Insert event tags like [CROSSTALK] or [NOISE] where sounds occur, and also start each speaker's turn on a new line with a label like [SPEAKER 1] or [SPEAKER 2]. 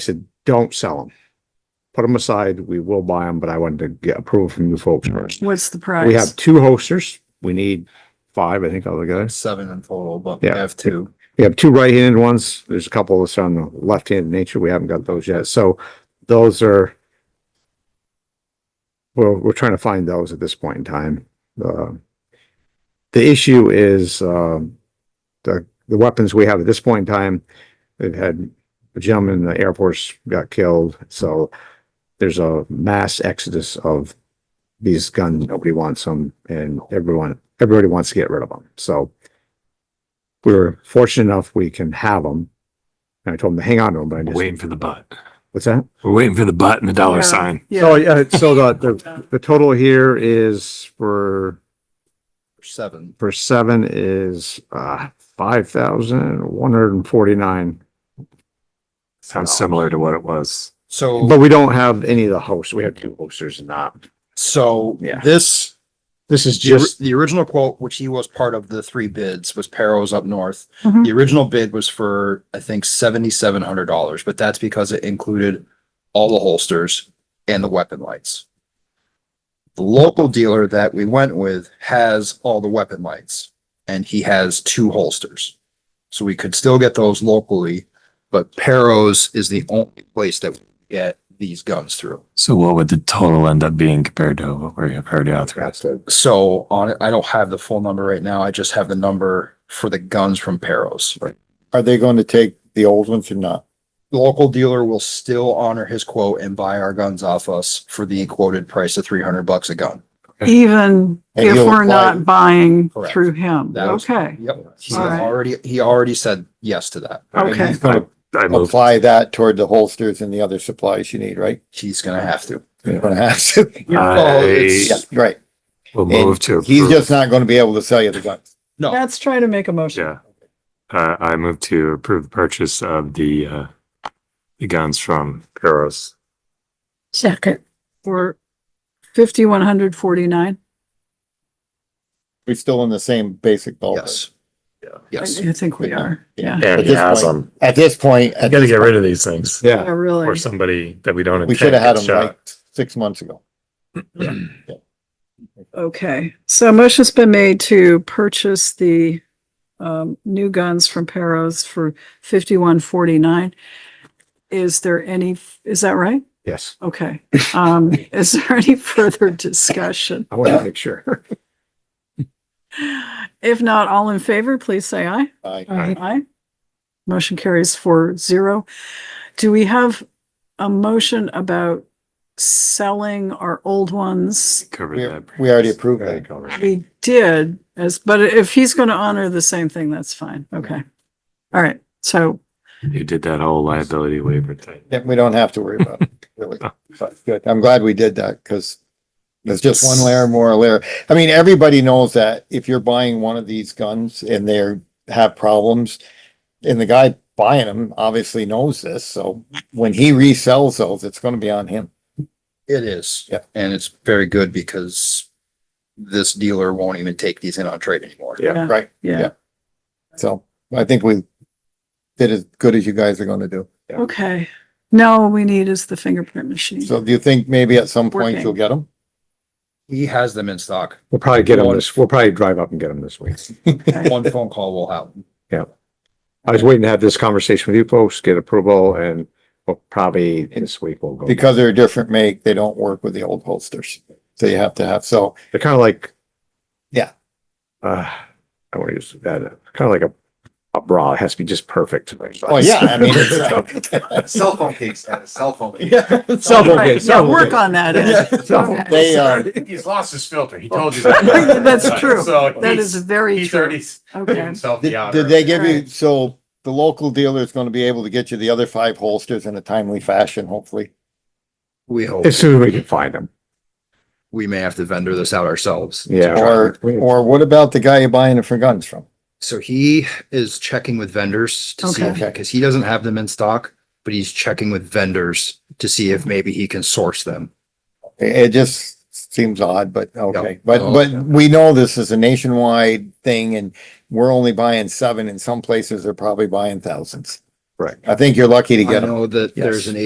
[SPEAKER 1] said, don't sell them. Put them aside. We will buy them, but I wanted to get approval from you folks first.
[SPEAKER 2] What's the
[SPEAKER 1] We have
[SPEAKER 2] price?
[SPEAKER 1] two hosters. We need five, I think, altogether.
[SPEAKER 3] seven in total, but
[SPEAKER 1] we
[SPEAKER 3] we
[SPEAKER 1] Yeah.
[SPEAKER 3] have two.
[SPEAKER 1] We have two right-handed ones. There's a couple that's on the left-handed nature. We haven't got those yet. So those are. Well, we're trying to find those at this point in time. Uh, the issue is, um, the, the weapons we have at this point in time, they've had a gentleman in the Air Force got killed. So there's a mass exodus of these guns. Nobody wants them and everyone, everybody wants to get rid of them. So we were fortunate enough we can have them. And I told him to hang on to them, but I
[SPEAKER 4] We're
[SPEAKER 1] just,
[SPEAKER 4] waiting for the butt.
[SPEAKER 1] what's that?
[SPEAKER 4] We're waiting for the butt and the dollar
[SPEAKER 2] Yeah.
[SPEAKER 4] sign.
[SPEAKER 1] So,
[SPEAKER 2] Yeah,
[SPEAKER 1] yeah, so the, the, the total here is for,
[SPEAKER 3] Seven.
[SPEAKER 1] for seven is, uh, five thousand one hundred and forty-nine.
[SPEAKER 4] Sounds similar to what it was.
[SPEAKER 3] So,
[SPEAKER 1] But we don't have any of the hosts. We have two hosters and not.
[SPEAKER 3] so
[SPEAKER 1] Yeah.
[SPEAKER 3] this,
[SPEAKER 1] This is
[SPEAKER 3] the or-
[SPEAKER 1] just,
[SPEAKER 3] the original quote, which he was part of the three bids, was Perro's up north.
[SPEAKER 2] Mhm.
[SPEAKER 3] The original bid was for, I think, seventy-seven hundred dollars, but that's because it included all the holsters and the weapon lights. The local dealer that we went with has all the weapon lights and he has two holsters. So we could still get those locally, but Perro's is the only place that we get these guns through.
[SPEAKER 4] So what would the total end up being compared to what we have already authorized?
[SPEAKER 3] So on it, I don't have the full number right now. I just have the number for the guns from Perro's.
[SPEAKER 5] Are they going to take the old ones or not?
[SPEAKER 3] The local dealer will still honor his quote and buy our guns off us for the quoted price of three hundred bucks a gun.
[SPEAKER 2] even
[SPEAKER 5] And
[SPEAKER 2] if
[SPEAKER 5] you'll
[SPEAKER 2] we're
[SPEAKER 5] apply-
[SPEAKER 2] not buying
[SPEAKER 3] Correct.
[SPEAKER 2] through him.
[SPEAKER 3] That was-
[SPEAKER 2] Okay,
[SPEAKER 3] Yep. He
[SPEAKER 2] All right.
[SPEAKER 3] already, he already said yes to that.
[SPEAKER 2] okay.
[SPEAKER 4] I I moved.
[SPEAKER 5] Apply that toward the holsters and the other supplies you need, right?
[SPEAKER 3] He's gonna have to.
[SPEAKER 5] You're gonna have to.
[SPEAKER 3] Oh,
[SPEAKER 4] I
[SPEAKER 5] Yeah,
[SPEAKER 3] it's-
[SPEAKER 5] right.
[SPEAKER 4] will
[SPEAKER 5] And
[SPEAKER 4] move to.
[SPEAKER 5] He's
[SPEAKER 4] approve.
[SPEAKER 5] just not gonna be able to sell you the guns.
[SPEAKER 3] No,
[SPEAKER 2] Let's try to make a motion.
[SPEAKER 4] Yeah. Uh, I move to approve the purchase of the, uh, the guns from Peros.
[SPEAKER 2] Second. For fifty-one hundred forty-nine.
[SPEAKER 5] We're still in the same basic ballpark.
[SPEAKER 3] yes.
[SPEAKER 2] I
[SPEAKER 3] Yes.
[SPEAKER 2] do think we
[SPEAKER 5] Yeah.
[SPEAKER 2] are. Yeah.
[SPEAKER 5] At this point-
[SPEAKER 4] them.
[SPEAKER 5] At this point,
[SPEAKER 4] You
[SPEAKER 5] at
[SPEAKER 4] gotta
[SPEAKER 5] this
[SPEAKER 4] get rid of these things
[SPEAKER 2] Yeah,
[SPEAKER 1] yeah,
[SPEAKER 4] or
[SPEAKER 2] really.
[SPEAKER 4] somebody that we don't.
[SPEAKER 5] we should have had them like six months ago.
[SPEAKER 2] Okay. So a motion's been made to purchase the um, new guns from Perros for fifty-one forty-nine. Is there any, is that right?
[SPEAKER 1] yes,
[SPEAKER 2] Okay. Um, is there any further discussion?
[SPEAKER 1] I want to make sure.
[SPEAKER 2] If not, all in favor, please say aye.
[SPEAKER 5] I-
[SPEAKER 4] Aye.
[SPEAKER 2] Aye. Motion carries four zero. Do we have a motion about selling our old ones?
[SPEAKER 4] Covered
[SPEAKER 5] We,
[SPEAKER 4] that.
[SPEAKER 5] we already approved that.
[SPEAKER 2] We did, as, but if he's going to honor the same thing, that's fine. Okay. All right. So,
[SPEAKER 4] You did that whole liability waiver thing.
[SPEAKER 5] Yeah, We don't have to worry about it,
[SPEAKER 4] [LAUGHS]
[SPEAKER 5] really.
[SPEAKER 4] Oh.
[SPEAKER 5] But good. I'm glad we did that because there's just one layer more layer. I mean, everybody knows that if you're buying one of these guns and they're have problems and the guy buying them obviously knows this, so when he resells those, it's gonna be on him.
[SPEAKER 3] It is.
[SPEAKER 5] Yeah.
[SPEAKER 3] And it's very good because this dealer won't even take these in on trade anymore.
[SPEAKER 4] Yeah.
[SPEAKER 2] yeah,
[SPEAKER 5] Right.
[SPEAKER 2] yeah.
[SPEAKER 5] So I think we did as good as you guys are gonna do.
[SPEAKER 2] Okay. Now all we need is the fingerprint machine.
[SPEAKER 5] So do you think maybe at some point
[SPEAKER 2] Working.
[SPEAKER 5] you'll get them?
[SPEAKER 3] He has them in stock.
[SPEAKER 1] We'll probably get them this, we'll probably drive up and get them this week.
[SPEAKER 3] One phone call will help.
[SPEAKER 1] I was waiting to have this conversation with you folks, get approval and we'll probably this week we'll go.
[SPEAKER 5] Because they're a different make, they don't work with the old holsters. So you have to have, so
[SPEAKER 1] They're kind of like.
[SPEAKER 5] Yeah.
[SPEAKER 1] Uh, I want to use that, kind of like a, a bra. It has to be just perfect.
[SPEAKER 5] Oh, yeah, I mean,
[SPEAKER 1] [LAUGHS]
[SPEAKER 3] [LAUGHS]
[SPEAKER 5] it's- uh,
[SPEAKER 3] Cell phone case, cell phone.
[SPEAKER 1] Cell phone
[SPEAKER 2] Right,
[SPEAKER 1] case,
[SPEAKER 2] Yeah,
[SPEAKER 1] cell phone
[SPEAKER 2] work
[SPEAKER 1] case.
[SPEAKER 6] [LAUGHS]
[SPEAKER 2] on that. Ed.
[SPEAKER 1] Cell phone-
[SPEAKER 5] They, uh,
[SPEAKER 6] He's lost his filter. He told you that.
[SPEAKER 2] That's true.
[SPEAKER 6] So
[SPEAKER 2] That
[SPEAKER 6] he's-
[SPEAKER 2] is very
[SPEAKER 6] He's already
[SPEAKER 2] true.
[SPEAKER 6] s- did
[SPEAKER 2] Okay.
[SPEAKER 6] himself the
[SPEAKER 5] did
[SPEAKER 6] honor.
[SPEAKER 5] did they give you,
[SPEAKER 2] Alright.
[SPEAKER 5] so the local dealer is gonna be able to get you the other five holsters in a timely fashion, hopefully.
[SPEAKER 3] We hope,
[SPEAKER 1] As soon as we can find them.
[SPEAKER 3] we may have to vendor this out ourselves.
[SPEAKER 1] Yeah.
[SPEAKER 5] Or, or what about the guy you're buying it for guns from?
[SPEAKER 3] So he is checking with vendors to see,
[SPEAKER 5] Okay.
[SPEAKER 3] because he doesn't have them in stock, but he's checking with vendors to see if maybe he can source them.
[SPEAKER 5] It, it just seems odd, but okay,
[SPEAKER 3] Yep.
[SPEAKER 5] but,
[SPEAKER 3] Oh,
[SPEAKER 5] but
[SPEAKER 3] yeah.
[SPEAKER 5] we know this is a nationwide thing and we're only buying seven and some places are probably buying thousands. I think you're lucky to
[SPEAKER 3] I
[SPEAKER 5] get them.
[SPEAKER 3] know that there's an